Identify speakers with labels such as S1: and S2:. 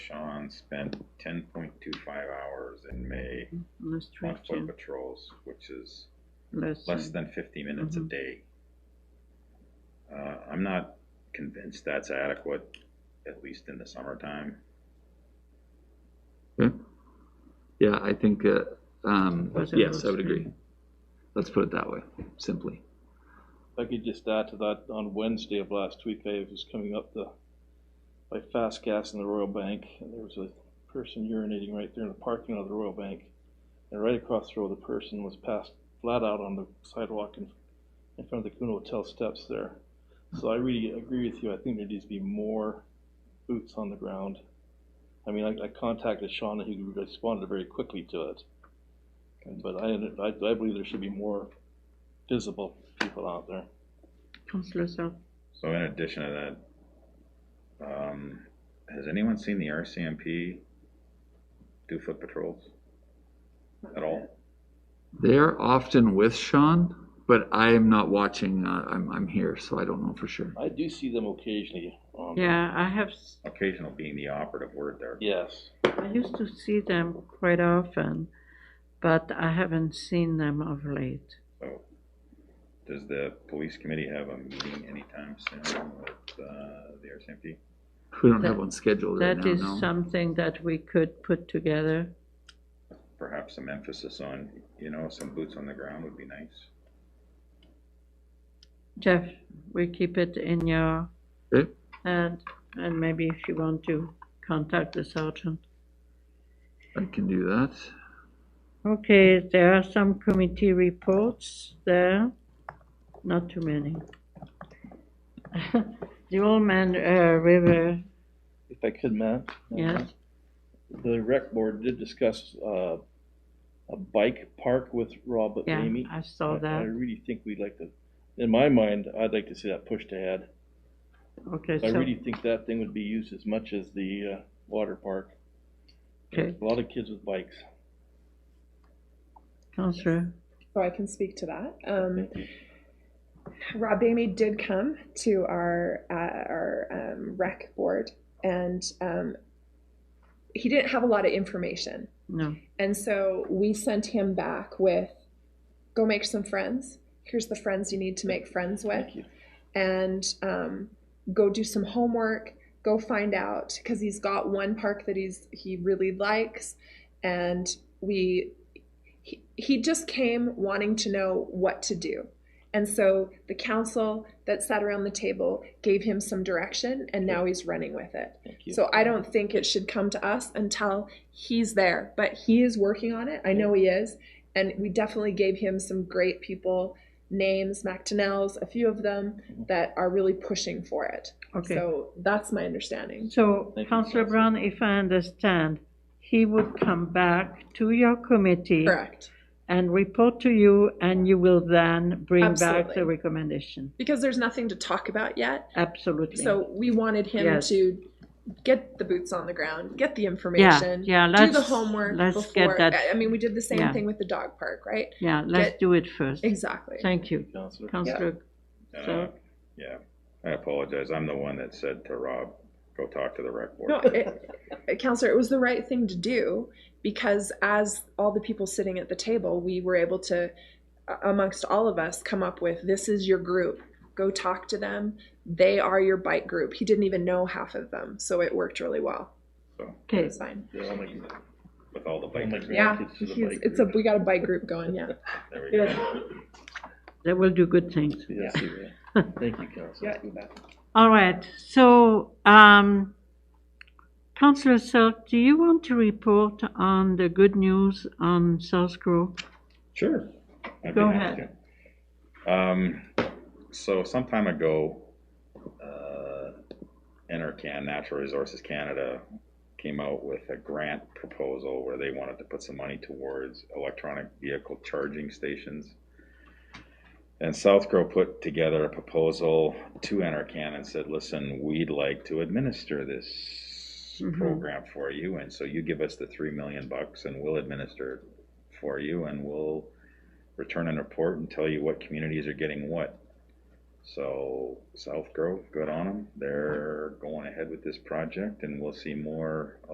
S1: Sean spent ten point two five hours in May on foot
S2: Restriction,
S1: patrols, which is
S2: less
S1: less
S2: than,
S1: than fifty minutes a
S2: Mhm.
S1: day. Uh, I'm not convinced that's adequate, at least in the summertime.
S3: Okay. Hmm? Yeah, I think, uh, um,
S2: Was it
S3: yes, I would
S2: most-
S3: agree. Let's put it that way, simply.
S4: If I could just add to that, on Wednesday of last week, I was coming up the, by fast gas in the Royal Bank, and there was a person urinating right there in the parking lot of the Royal Bank. And right across the road, the person was passed flat out on the sidewalk in, in front of the Kuhn Hotel steps there. So I really agree with you, I think there needs to be more boots on the ground. I mean, I, I contacted Sean, and he responded very quickly to it. But I, I, I believe there should be more visible people out there.
S2: Councillor Self,
S1: So in addition to that, um, has anyone seen the RCMP do foot patrols? At all?
S3: They're often with Sean, but I am not watching, uh, I'm, I'm here, so I don't know for sure.
S4: I do see them occasionally um, on.
S2: yeah, I have, s-
S1: Occasional being the operative word there.
S4: Yes.
S2: I used to see them quite often, but I haven't seen them of late.
S1: So, does the police committee have a meeting anytime soon with, uh, the RCMP?
S3: We don't have
S2: That-
S3: one scheduled right
S2: That
S3: now,
S2: is
S3: no.
S2: something that we could put together.
S1: Perhaps some emphasis on, you know, some boots on the ground would be nice.
S2: Jeff, we keep it in your
S3: Okay.
S2: hand, and maybe if you want to contact the sergeant.
S3: I can do that.
S2: Okay, there are some committee reports there, not too many. The Old Man uh, River,
S4: If I could, Matt?
S2: yes,
S4: The rec board did discuss, uh, a bike park with Rob and
S2: yeah,
S4: Amy.
S2: I saw
S4: I
S2: that.
S4: really think we'd like to, in my mind, I'd like to see that pushed ahead.
S2: Okay,
S4: I
S2: so,
S4: really think that thing would be used as much as the, uh, water park.
S2: okay,
S4: A lot of kids with bikes.
S2: Counselor,
S5: Oh, I can speak to that. Um, Rob Bamey did come to our uh, our um, rec board, and um, he didn't have a lot of information,
S2: no,
S5: and so we sent him back with, "Go make some friends. Here's the friends you need to make friends with,
S4: Thank you.
S5: and um, go do some homework. Go find out because he's got one park that he's he really likes, and we he, he just came wanting to know what to do. And so the council that sat around the table gave him some direction, and now he's running with it.
S4: Thank you.
S5: So I don't think it should come to us until he's there, but he is working on it. I know he is. And we definitely gave him some great people, names, MacTonnell's, a few of them that are really pushing for it.
S2: okay.
S5: So that's my understanding.
S2: So,
S4: Thank you,
S2: Counselor
S4: Counselor.
S2: Brown, if I understand, he would come back to your committee
S5: Correct.
S2: and report to you, and you will then bring back the
S5: Absolutely.
S2: recommendation.
S5: Because there's nothing to talk about yet.
S2: Absolutely.
S5: So we wanted him
S2: Yes.
S5: to get the boots on the ground, get the
S2: Yeah,
S5: information,
S2: yeah,
S5: do
S2: let's,
S5: the homework
S2: let's
S5: before.
S2: get that,
S5: I- I mean, we did the same
S2: Yeah.
S5: thing with the dog park, right?
S2: yeah, let's
S5: get-
S2: do it first.
S5: Exactly.
S2: Thank you.
S4: Counselor.
S2: Counselor,
S1: Uh,
S2: So-
S1: Yeah, I apologize, I'm the one that said to Rob, go talk to the rec board.
S5: No, it, it- counselor, it was the right thing to do because as all the people sitting at the table, we were able to, a- amongst all of us, come up with this is your group. Go talk to them. They are your bike group. He didn't even know half of them, so it worked really well.
S1: So,
S5: It
S2: okay,
S5: was fine.
S4: Yeah, I'll make-
S1: with all the
S4: I'll make
S1: bikers,
S5: Yeah,
S4: grandkids to the
S5: he's-
S4: bike
S5: it's a
S4: group.
S5: we got a bike group going. Yeah.
S1: there we
S5: Yes.
S1: go.
S2: they will do good things.
S4: Yes, you will. Thank you, Counselor.
S2: All right, so, um, Counselor Selk, do you want to report on the good news on South Grove?
S1: Sure. I'd be
S2: Go
S1: happy to. Um, so some time ago, uh, Enercan Natural Resources Canada came out with a grant proposal where they wanted to put some money towards electronic vehicle charging stations. And South Grow put together a proposal to Enercan and said, listen, we'd like to administer this
S2: Mhm.
S1: program for you. And so you give us the three million bucks and we'll administer it for you and we'll return and report and tell you what communities are getting what. So South Grove, good on them. They're going ahead with this project and we'll see more